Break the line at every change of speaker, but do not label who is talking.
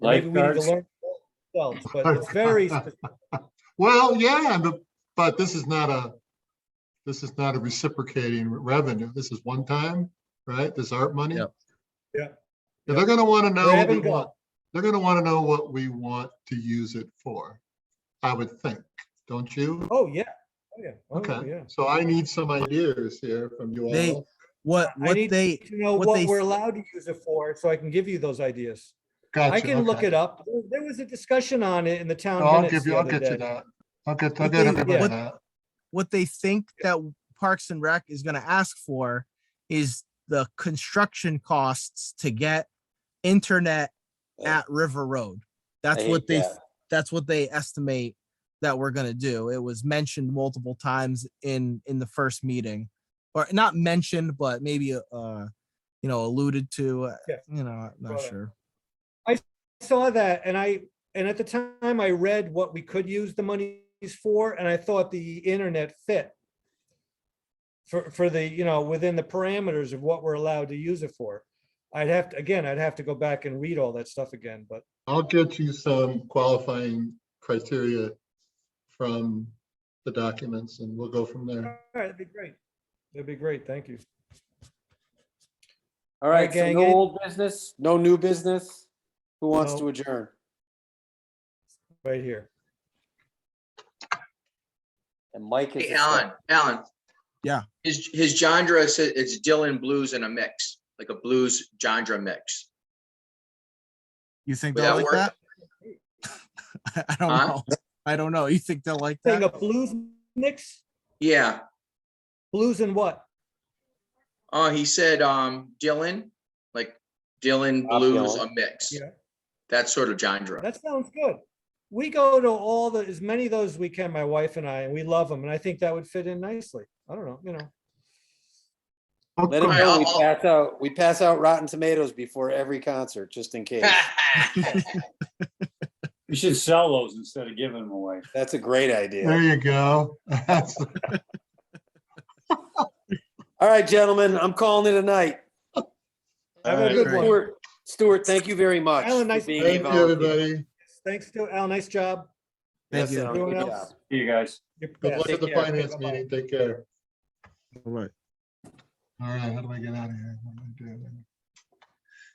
Or Maybe we need to
Lifeguards.
learn ourselves, but it's very, spe-
Well, yeah, and the- but this is not a, this is not a reciprocating revenue. This is one time, right? This art money.
Yeah.
Yeah.
Yeah, They're gonna wanna know,
Grab
what we
and go.
want- they're gonna wanna know what we want to use it for, I would think, don't you?
oh, yeah, oh, yeah, oh, yeah.
Okay, so I need some ideas here from you
They-
all.
What,
I
what
need
they,
to know
what
what
they
we're
s-
allowed to use it for, so I can give you those ideas. I
Gotcha,
can look
okay.
it up. There- There was a discussion on it in the town
I'll
minutes
give
the
you, I'll
other
get you
day.
that. I'll get, I'll
What
get
they-
everybody
what-
that.
what they think that Parks and Rec is gonna ask for is the construction costs to get internet at River Road. That's
hate
what they,
that.
that's what they estimate that we're gonna do. It was mentioned multiple times in, in the first meeting. Or not mentioned, but maybe, uh, you know, alluded to, uh,
Yeah.
you know, I'm not
Brought up.
sure.
saw that and I, and at the time I read what we could use the monies for and I thought the internet fit. For, for the, you know, within the parameters of what we're allowed to use it for. I'd have to, again, I'd have to go back and read all that stuff again, but
I'll get you some qualifying criteria from the documents and we'll go from there.
all right, it'd be great. It'd be great. Thank you.
All right, so
gang,
no
any-
old business, no new business. Who wants
No.
to adjourn?
Right here.
And Mike is.
Hey, Alan, Alan.
Yeah.
His, his genre is, it's Dylan blues and a mix, like a blues genre mix.
You think
Would
they'll
that
like that? I don't
Huh?
know. I don't know. You think they'll like
Thing
that?
of blues mix,
Yeah.
blues and what?
Uh, he said, um, Dylan, like Dylan
Bob
blues,
Dylan.
a mix.
Yeah.
That sort of genre.
That sounds good. We go to all the, as many of those we can, my wife and I, and we love them. And I think that would fit in nicely. I don't know, you know.
Let him
Alright,
know
I'll-
we
I'll-
pass out, we pass out Rotten Tomatoes before every concert, just in case.
Ah.
You should sell those instead of giving them away.
That's a great
There
idea.
you go. That's-
All right, gentlemen, I'm calling it a night.
Have
All
a
right,
good
great.
one.
Stuart, Stuart, thank you very much.
Alan,
for
nice-
being
Thank you,
involved.
everybody.
Thanks to Al. Nice job.
Thank
Yes,
you.
Alan,
Everyone
good
else?
job.
See you guys.
You're-
Good
yeah,
luck
take
at the
care. Okay,
finance
bye-bye.
meeting. Take care.
uh,
All right.
All right, how do I get out of here? What am I doing?